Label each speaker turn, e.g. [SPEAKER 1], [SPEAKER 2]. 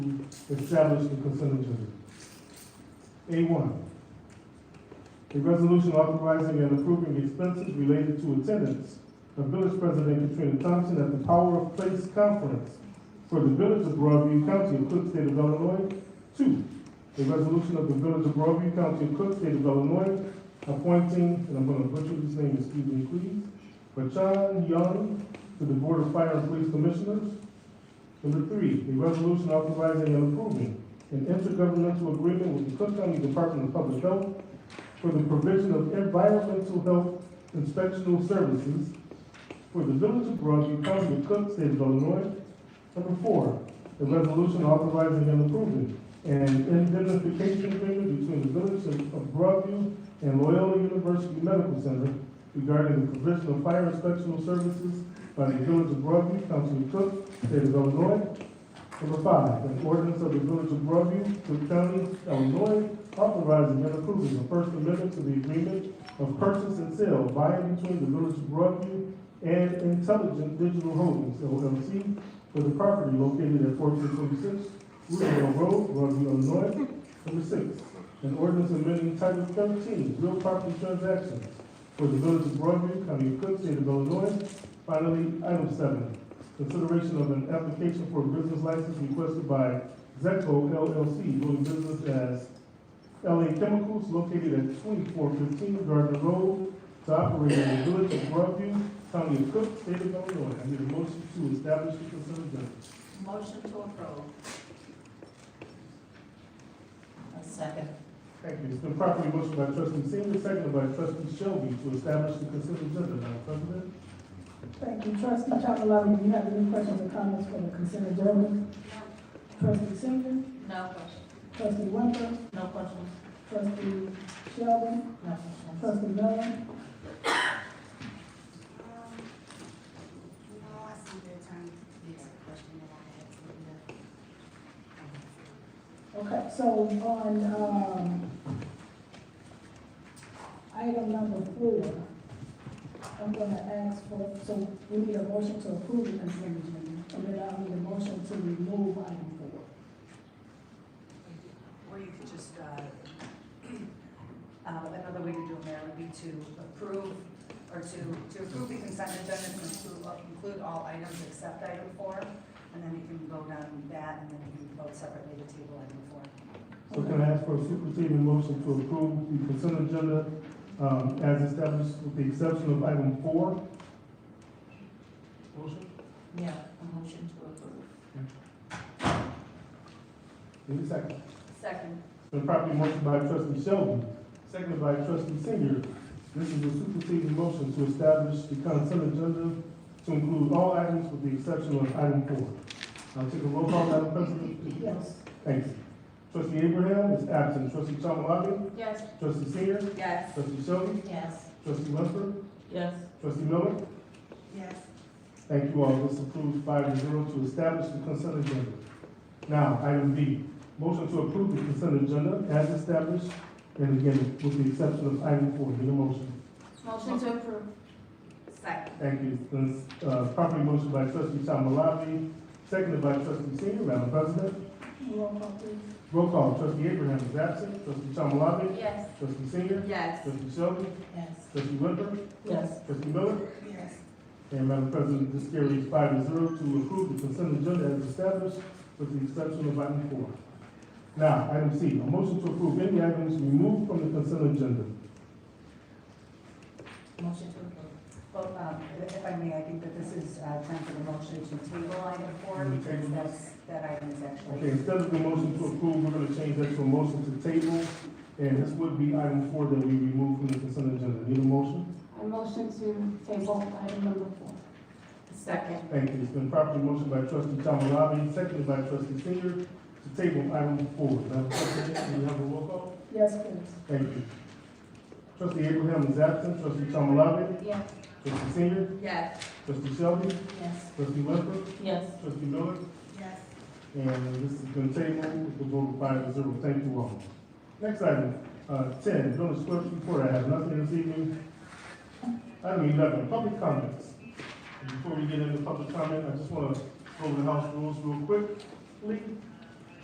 [SPEAKER 1] establish the consent agenda. A one, a resolution authorizing and approving expenses related to attendance of Village President Katrina Thompson at the Power of Place Conference for the Village of Broadview County of Cook State of Illinois. Two, a resolution of the Village of Broadview County of Cook State of Illinois appointing, and I'm gonna butcher his name, excuse me, please, Rachan Young to the Board of Fire and Police Commissioners. Number three, a resolution authorizing and approving an intergovernmental agreement with the Cook County Department of Public Health for the provision of environmental health inspectional services for the Village of Broadview, County of Cook, State of Illinois. Number four, a resolution authorizing and approving an indemnification agreement between the Village of of Broadview and Loyola University Medical Center regarding the provision of fire inspectional services by the Village of Broadview, County of Cook, State of Illinois. Number five, an ordinance of the Village of Broadview, Cook County, Illinois, authorizing and approving the First Amendment to the agreement of purchase and sale by and between the Village of Broadview and Intelligent Digital Holdings, LLC, for the property located at fourteen twenty-six Roosevelt Road, Broadview, Illinois. Number six, an ordinance amending Title thirteen, real property transactions for the village of Broadview, County of Cook, State of Illinois. Finally, item seven, consideration of an application for a business license requested by Zeco LLC, doing business as LA Chemicals, located at twenty-four fifteen Gardner Road, to operate in the village of Broadview, County of Cook, State of Illinois. I need a motion to establish the consent agenda.
[SPEAKER 2] Motion to approve. A second.
[SPEAKER 1] Thank you. It's been properly motioned by trustee Senior, seconded by trustee Shelby to establish the consent agenda, Madam President.
[SPEAKER 3] Thank you. Trustee Chakalala, do you have any questions or comments for the consent agenda? Trustee Singer,
[SPEAKER 2] No questions.
[SPEAKER 3] trustee Winters,
[SPEAKER 2] No questions.
[SPEAKER 3] trustee Sheldon,
[SPEAKER 2] No questions.
[SPEAKER 3] trustee Miller,
[SPEAKER 4] No, I see the attorney, the question that I had to do.
[SPEAKER 3] Okay, so on, um, item number four, I'm gonna ask for, so we need a motion to approve the consent agenda, and then I'll need a motion to remove item four.
[SPEAKER 2] Or you could just, uh, uh, another way to do it, Mayor, would be to approve, or to, to approve the consent agenda and include, uh, include all items except item four, and then you can vote on that, and then you can vote separately to table item four.
[SPEAKER 1] So can I ask for a superseding motion to approve the consent agenda, um, as established with the exception of item four? Motion?
[SPEAKER 2] Yeah, a motion to approve.
[SPEAKER 1] Need a second.
[SPEAKER 2] Second.
[SPEAKER 1] It's been properly motioned by trustee Shelby, seconded by trustee Senior. This is a superseding motion to establish the consent agenda to include all items with the exception of item four. I'll take a roll call, Madam President. please.
[SPEAKER 3] Yes.
[SPEAKER 1] Thanks. Trustee Abraham is absent. Trustee Chalmalabi,
[SPEAKER 2] Yes.
[SPEAKER 1] trustee Senior,
[SPEAKER 2] Yes.
[SPEAKER 1] trustee Shelby,
[SPEAKER 2] Yes.
[SPEAKER 1] trustee Lester,
[SPEAKER 2] Yes.
[SPEAKER 1] trustee Miller.
[SPEAKER 4] Yes,
[SPEAKER 1] Thank you all. This approves five to zero to establish the consent agenda. Now, item B, motion to approve the consent agenda as established, and again, with the exception of item four. Need a motion?
[SPEAKER 2] Motion to approve. Second.
[SPEAKER 1] Thank you. Since, uh, properly motion by trustee Chalmalabi, seconded by trustee Senior. Madam President,
[SPEAKER 3] Roll call, please.
[SPEAKER 1] roll call. Trustee Abraham is absent. Trustee Chalmalabi,
[SPEAKER 2] Yes.
[SPEAKER 1] trustee Senior,
[SPEAKER 2] Yes.
[SPEAKER 1] trustee Shelby,
[SPEAKER 2] Yes.
[SPEAKER 1] trustee Whitmer,
[SPEAKER 3] Yes.
[SPEAKER 1] trustee Miller.
[SPEAKER 4] yes,
[SPEAKER 1] And Madam President, this carries five to zero to approve the consent agenda as established with the exception of item four. Now, item C, a motion to approve any items removed from the consent agenda.
[SPEAKER 2] Motion to approve. Well, um, if I may, I think that this is uh, time for the motion to table item four,
[SPEAKER 1] Can we
[SPEAKER 2] because
[SPEAKER 1] table
[SPEAKER 2] that's, that item is actually.
[SPEAKER 1] Okay, instead of the motion to approve, we're gonna change that to a motion to table, and this would be item four that we remove from the consent agenda. Need a motion?
[SPEAKER 5] I motion to table item number four.
[SPEAKER 2] Second.
[SPEAKER 1] Thank you. It's been properly motioned by trustee Tomalabi, seconded by trustee Singer, to table item four. Madam President, we have a roll call?
[SPEAKER 3] Yes, please.
[SPEAKER 1] Thank you. Trustee Abraham is absent. Trustee Tomalabi,
[SPEAKER 2] Yes.
[SPEAKER 1] trustee Senior,
[SPEAKER 2] Yes.
[SPEAKER 1] Trustee Shelby,
[SPEAKER 2] Yes.
[SPEAKER 1] trustee Westbrook,
[SPEAKER 2] Yes.
[SPEAKER 1] trustee Miller,
[SPEAKER 4] yes.
[SPEAKER 1] and this has been tabled with the vote of five to zero. Thank you all. Next item, uh, ten, village clerk's report. I have nothing this evening. Item eleven, public comments. And Before we get into public comment, I just want to go over the house rules real quickly.